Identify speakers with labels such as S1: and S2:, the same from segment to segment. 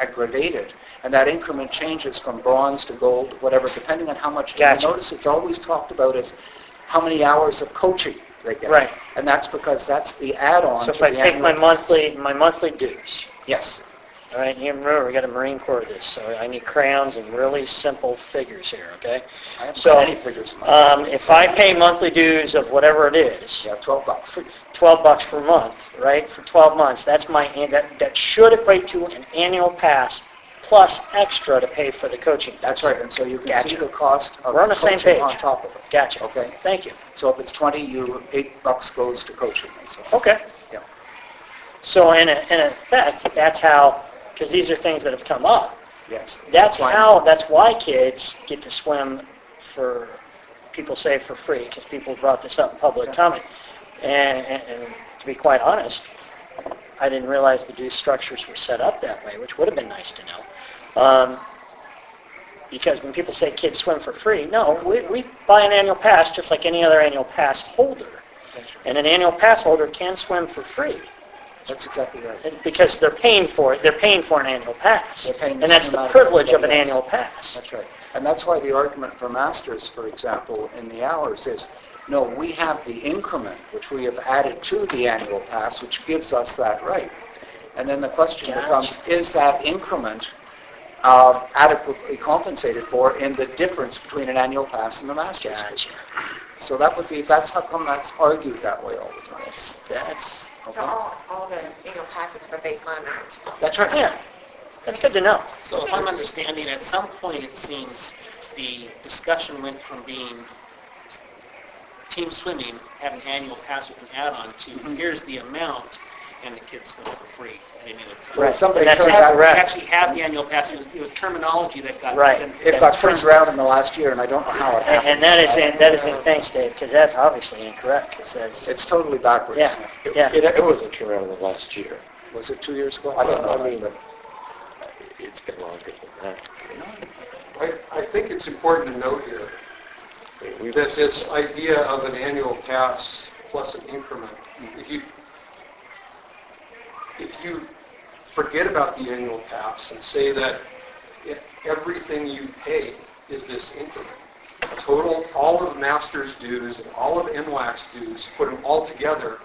S1: I gradate it, and that increment changes from bronze to gold, whatever, depending on how much. time.
S2: Gotcha.
S1: Notice it's always talked about as how many hours of coaching they get.
S2: Right.
S1: And that's because that's the add-on to
S2: So if
S1: the
S2: I take my
S1: annual-
S2: monthly, my monthly dues,
S1: Yes,
S2: all right, here, remember, we got a Marine Corps of this, so I need crowns and really simple figures here, okay?
S1: I haven't
S2: So,
S1: put any figures in my,
S2: um, if I pay monthly dues of whatever it is,
S1: yeah, 12 bucks.
S2: for 12 bucks per month, right, for 12 months, that's my, an- that, that should equate to an annual pass plus extra to pay for the coaching.
S1: That's right, and so you can
S2: Gotcha.
S1: see the cost of
S2: We're on the same
S1: coaching on
S2: page.
S1: top of it.
S2: Gotcha.
S1: Okay.
S2: Thank you.
S1: So if it's 20, you, eight bucks goes to coaching and so forth.
S2: Okay.
S1: Yeah.
S2: So in, a- in effect, that's how, because these are things that have come up.
S1: Yes.
S2: That's
S1: Fine.
S2: how, that's why kids get to swim for, people say for free, because people brought this up in public
S1: Yeah.
S2: comment. And, and- and to be quite honest, I didn't realize the due structures were set up that way, which would have been nice to know. Um, Because when people say kids swim for free, no, we, we buy an annual pass just like any other annual pass holder.
S1: That's right.
S2: And an annual pass holder can swim for free
S1: That's exactly right.
S2: and- because they're paying for it, they're paying for an annual pass.
S1: They're paying the
S2: And that's
S1: same
S2: the
S1: amount as
S2: privilege of an
S1: everybody else.
S2: annual pass.
S1: That's right. And that's why the argument for masters, for example, in the hours is, no, we have the increment, which we have added to the annual pass, which gives us that right. And then the question
S2: Gotcha.
S1: becomes, is that increment uh, adequately compensated for in the difference between an annual pass and the master's?
S2: Gotcha.
S1: So that would be, that's how come that's argued that way all the time.
S2: That's, that's,
S3: So all, all the annual passes were based on that.
S1: That's right.
S2: yeah, that's good to know.
S4: So if I'm understanding, at some point, it seems the discussion went from being team swimming, have an annual pass with an add-on to here's the amount and the kids swim for free at any other time.
S1: Right, somebody
S2: And that's
S1: turned
S4: That's-
S1: that
S4: they
S1: around.
S2: correct.
S4: actually have the annual pass, it was, it was terminology that got.
S2: Right.
S1: It got turned around in the last year, and I don't know how it
S2: And
S1: happened.
S2: and that is, in that is, in thanks Dave, because that's obviously incorrect, 'cause that's,
S1: It's totally backwards.
S2: yeah, yeah.
S5: It, it wasn't turned around in the last year.
S1: Was it two years ago? I don't know.
S5: I mean, it's been longer than that.
S6: I, I think it's important to note here
S5: I mean, We've,
S6: that this idea of an annual pass plus an increment, if you, if you forget about the annual pass and say that if everything you pay is this increment, total all of master's dues and all of NWAC's dues, put them all together,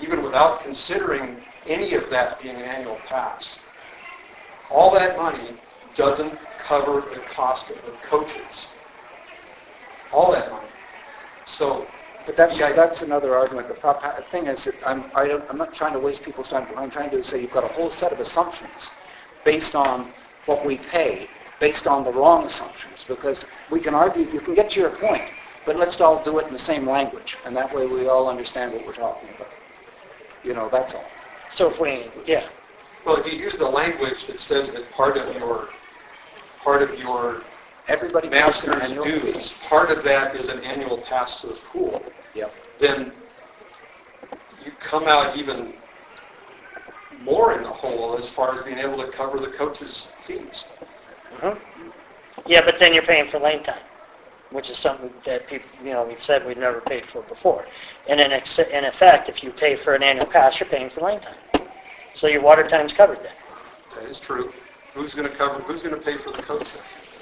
S6: even without considering any of that being an annual pass, all that money doesn't cover the cost of the coaches. All that money. So,
S1: But that's,
S6: Yeah.
S1: that's another argument. The prop- uh, thing is, that I'm, I don't, I'm not trying to waste people's time. What I'm trying to do is say you've got a whole set of assumptions based on what we pay, based on the wrong assumptions, because we can argue, you can get to your point, but let's all do it in the same language, and that way we all understand what we're talking about. You know, that's all.
S2: So if we, yeah,
S6: well, if you use the language that says that part of your, part of your
S1: Everybody pays an
S6: master's
S1: annual
S6: dues,
S1: fee.
S6: part of that is an annual pass to the pool,
S1: Yep.
S6: then you come out even more in the hole as far as being able to cover the coaches' fees.
S2: mhm. yeah, but then you're paying for lane time, which is something that people, you know, we've said we've never paid for before. And in, ex- in effect, if you pay for an annual pass, you're paying for lane time. So your water time's covered then.
S6: That is true. Who's going to cover, who's going to pay for the coaches?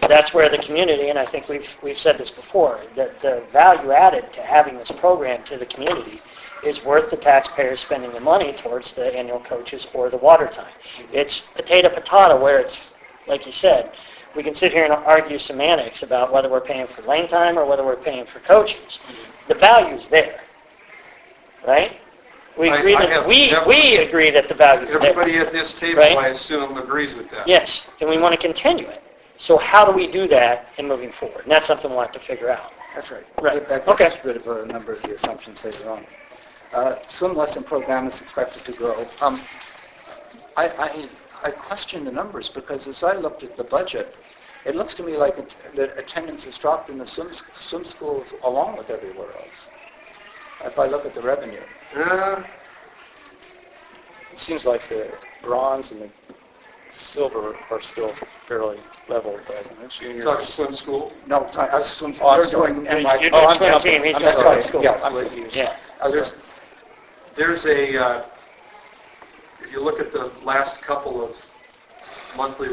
S2: that's where the community, and I think we've, we've said this before, that the value added to having this program to the community is worth the taxpayers spending the money towards the annual coaches or the water time. It's potato patata where it's, like you said, we can sit here and argue semantics about whether we're paying for lane time or whether we're paying for coaches. The value's there, right? We
S6: I-
S2: agree
S6: I
S2: that,
S6: have
S2: we,
S6: never-
S2: we agree that the value's there.
S6: Everybody at this table,
S2: Right.
S6: I assume, agrees with that.
S2: Yes, and we want to continue it. So how do we do that in moving forward? And that's something we'll have to figure out.
S1: That's right.
S2: Right.
S1: That
S2: Okay.
S1: gets rid of a number of the assumptions that are on. Uh, Swim lesson program is expected to grow. Um, I, I, I question the numbers because as I looked at the budget, it looks to me like it- that attendance has dropped in the swim, s- swim schools along with everywhere else. If I look at the revenue.
S6: Uh,
S5: it seems like the bronze and the silver are still fairly level, but
S6: You
S5: junior.
S6: talk to swim school.
S1: No, I, I swim,
S5: Oh, I'm
S1: they're
S5: sorry.
S1: doing
S5: You're-
S1: NY.
S2: you're
S5: Oh, I'm
S2: swim
S5: jumping.
S2: team, he's
S5: I'm
S1: doing
S5: sorry.
S1: swim.
S5: Yeah, I'm
S1: Yeah.
S5: confused.
S2: Yeah.
S6: There's, there's a, uh, if you look at the last couple of monthly